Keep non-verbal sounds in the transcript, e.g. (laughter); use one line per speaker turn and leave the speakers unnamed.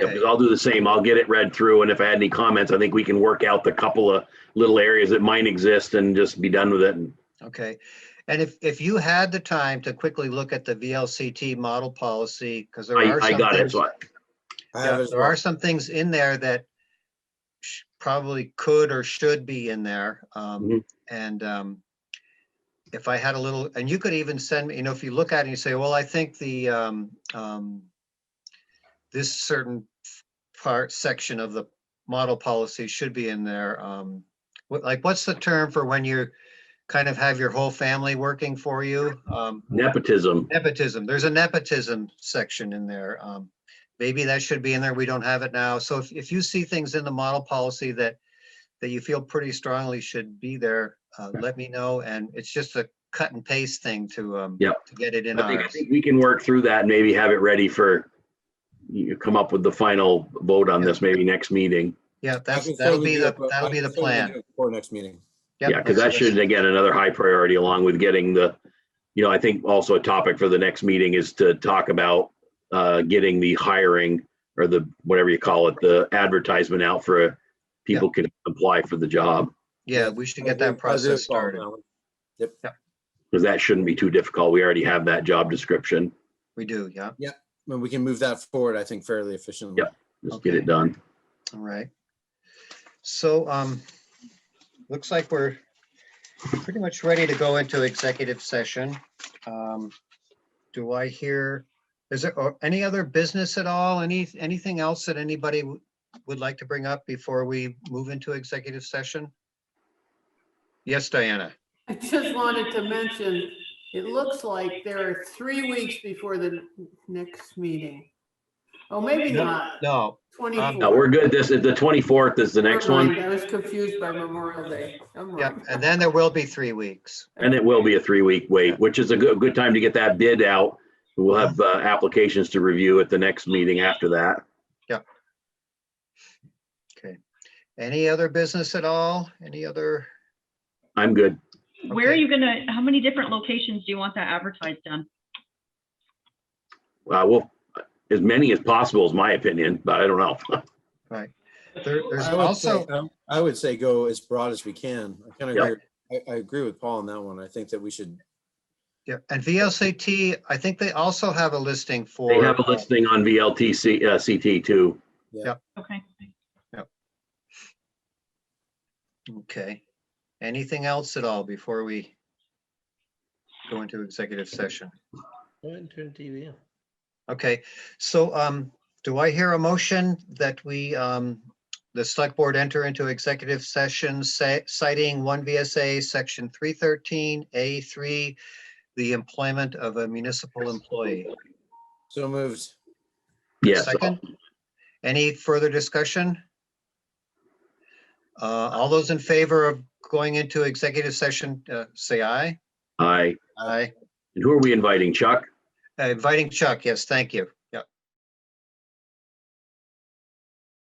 Yeah, because I'll do the same. I'll get it read through, and if I had any comments, I think we can work out the couple of little areas that might exist and just be done with it. And
Okay, and if, if you had the time to quickly look at the VLCT model policy, because there
I,
are
I
some
got it,
things,
so I-
I
yeah,
have it as
Uh, there
well.
are some things in there that sh- probably could or should be in there. Um,
Mhm.
and, um, if I had a little, and you could even send me, you know, if you look at it and you say, well, I think the, um, um, this certain part, section of the model policy should be in there. Um, what, like, what's the term for when you kind of have your whole family working for you? Um,
nepotism.
nepotism, there's a nepotism section in there. Um, maybe that should be in there. We don't have it now. So if, if you see things in the model policy that, that you feel pretty strongly should be there, uh, let me know. And it's just a cut and paste thing to, um,
Yep.
to get it in
I think, I
ours.
think we can work through that and maybe have it ready for, you come up with the final vote on this, maybe next meeting.
Yeah,
I
that's,
can
that'll
certainly
be
do
the,
it, but
that'll
I
be
can
the
certainly
plan.
do it Before next meeting.
Yep,
Yeah, because that
that's-
should, again, another high priority along with getting the, you know, I think also a topic for the next meeting is to talk about uh, getting the hiring or the, whatever you call it, the advertisement out for people can apply for the job,
Yeah, we should get
I'll
that
do- I'll do it
process
all
started.
now.
because that shouldn't be too difficult. We already have that job description.
We do, yeah,
When we can move that forward, I think fairly efficiently.
Yep. Just get
Okay.
it done.
all right. So, um, looks like we're pretty much ready to go into executive session. Um, Do I hear, is there or any other business at all? Any, anything else that anybody w- would like to bring up before we move into executive session? Yes, Diana,
I just wanted to mention, it looks like there are three weeks before the n- next meeting. Oh, maybe
No,
not,
no,
No, Uh, we're
twenty-four.
good. This is the 24th is the next one
I was confused by Memorial Day. I'm
yeah,
wrong.
and then there will be three weeks.
and it will be a three week wait, which is a good, good time to get that bid out. We'll have uh, applications to review at the next meeting after that.
Okay. Any other business at all? Any other?
I'm good.
Where are
Okay.
you gonna, how many different locations do you want that advertised on?
Uh, well, as many as possible is my opinion, but I don't know. (laughs)
Right. There, there's
I would say- um,
also,
I- I would say go as broad as we can. I kind of
Yep.
agree. I, I agree with Paul on that one. I think that we should,
yeah, and VLCT, I think they also have a listing for.
They have a
uh,
listing on VLTC, uh, CT too.
Okay.
Okay. Anything else at all before we go into executive session? Okay, so um, do I hear a motion that we, um, the select board enter into executive session ci- citing one VSA, section three thirteen, A three, the employment of a municipal employee?
so moved.
Yes.
Second? Any further discussion? Uh, all those in favor of going into executive session, uh, say aye.
I,
Aye.
and who are we inviting? Chuck?
Uh, Inviting Chuck, yes, thank you.